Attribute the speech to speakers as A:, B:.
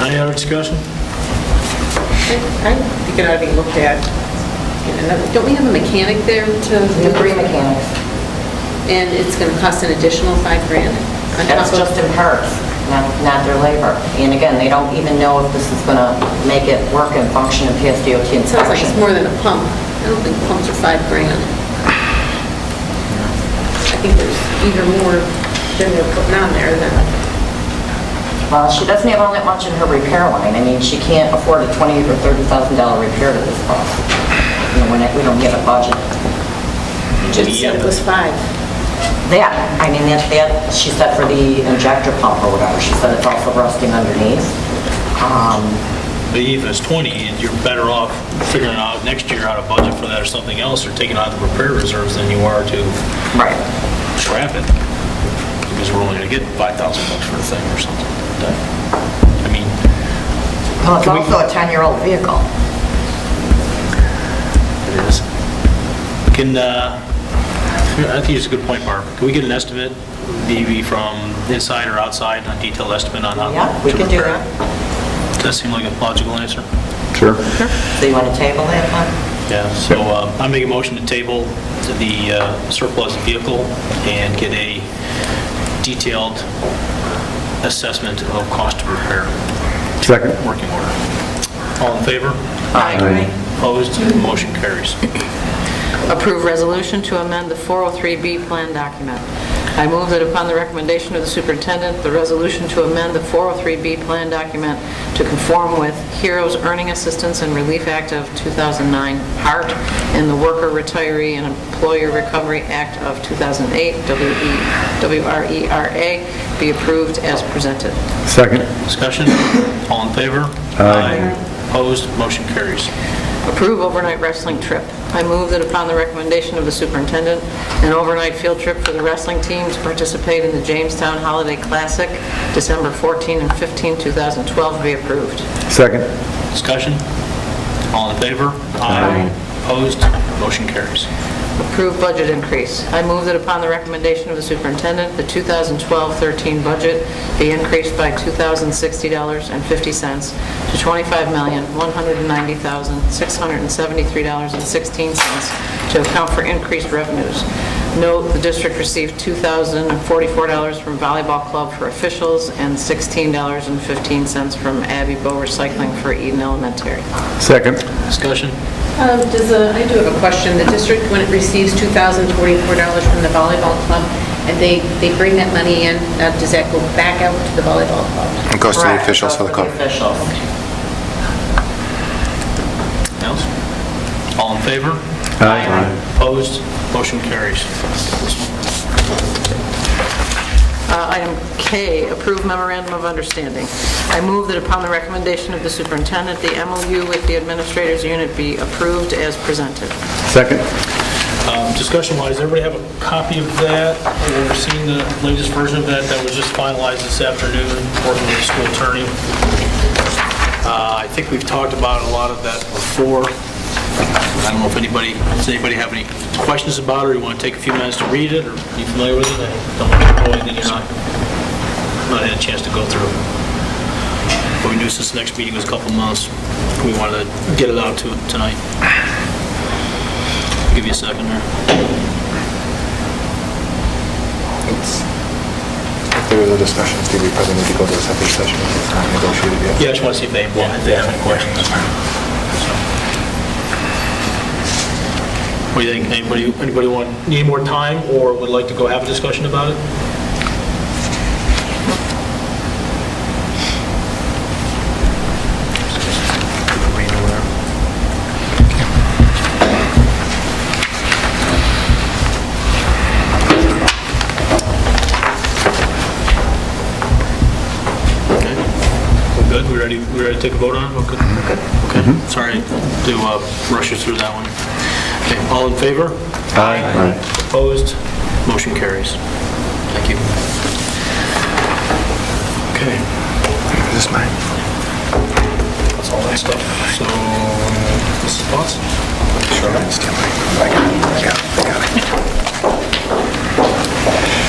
A: Any other discussion?
B: I think it ought to be looked at. in another- Don't we have a mechanic there
C: We
B: to,
C: have three mechanics.
B: and it's going to cost an additional five grand? on top
C: That's
B: of-
C: just in parts, not, not their labor. And again, they don't even know if this is going to make it work and function in PSDOT
B: It sounds like it's
C: inspection.
B: more than a pump. I don't think pumps are five grand. I think there's either more than they're putting on there than,
C: Well, she doesn't have all that much in her repair line. I mean, she can't afford a twenty or $30,000 repair to this cost. You know, we're not- we don't have a budget.
B: you just said it was five.
C: That, I mean, that, that, she said for the injector pump or whatever, she said it's also rusting underneath. Um,
A: But even if it's 20, and you're better off figuring out next year how to budget for that or something else, or taking out the repair reserves than you are to
C: Right.
A: scrap it, because we're only gonna get 5,000 bucks for the thing or something like that. I mean,
C: Well, it's also a 10-year-old vehicle.
A: it is. Can, uh, I think it's a good point, Barb. Can we get an estimate, maybe from inside or outside, a detailed estimate on how?
C: Yeah, we
A: to
C: can do
A: repair it?
C: that.
A: Does that seem like a logical answer?
D: Sure.
C: So you want to table that one?
A: Yeah, so uh, I make a motion to table the uh, surplus vehicle and get a detailed assessment of cost of repair,
D: Second.
A: working order. All in favor?
D: Aye.
A: Opposed? Motion carries.
E: Approve resolution to amend the 403B plan document. I move that upon the recommendation of the superintendent, the resolution to amend the 403B plan document to conform with Heroes Earning Assistance and Relief Act of 2009, HART, and the Worker Retiree and Employer Recovery Act of 2008, E WRERA, be approved as presented.
D: Second.
A: Discussion? All in favor? Opposed? Motion carries.
E: Approve overnight wrestling trip. I move that upon the recommendation of the superintendent, an overnight field trip for the wrestling team to participate in the Jamestown Holiday Classic, December 14 and 15, 2012, be approved.
D: Second.
A: Discussion? All in favor? Opposed? Motion carries.
E: Approve budget increase. I move that upon the recommendation of the superintendent, the 2012-13 budget be increased by $2,060.50 to $25,190,673.16 to account for increased revenues. Note, the district received $2,044 from volleyball club for officials and $16.15 from Abbey Bow Recycling for Eden Elementary.
D: Second.
A: Discussion?
B: Um, Does, the- I do have a question. The district, when it receives $2,044 from the volleyball club, and they, they bring that money in, now does that go back out to the volleyball club?
F: It goes to the
C: Correct,
F: officials for
C: goes
F: the
C: to
F: club.
C: officials.
A: Else? All in favor?
D: Aye.
A: Opposed? Motion carries.
E: Uh, Item K, approve memorandum of understanding. I move that upon the recommendation of the superintendent, the MOU with the administrators unit be approved as presented.
D: Second.
A: Um, Discussion-wise, everybody have a copy of that, or seen the latest version of that that was just finalized this afternoon, working with the school attorney? Uh, I think we've talked about a lot of that before. I don't know if anybody, does anybody have any questions about it, or you want to take a few minutes to read it, or are you familiar with it? I don't want to go anything you're not, not had a chance to go through. But we knew since the next meeting was a couple months, we wanted to get it out to tonight. Give you a second here.
F: If there is a discussion, Steve, we probably need to go to a separate session. It's not negotiated yet.
A: Yeah, I just want to see if they, if they have any questions. What do you think, anybody, anybody want, need more time, or would like to go have a discussion about it? Read over there. Okay. We're good, we ready, we ready to take a vote on it? Okay. Okay, sorry to uh, rush you through that one. Okay, all in favor?
D: Aye.
A: Opposed? Motion carries. Thank you. Okay,
F: Is this mine?
A: that's all that stuff. So, Mrs. Potts?
F: Sure. Stand by. I got it. I got it. I got it.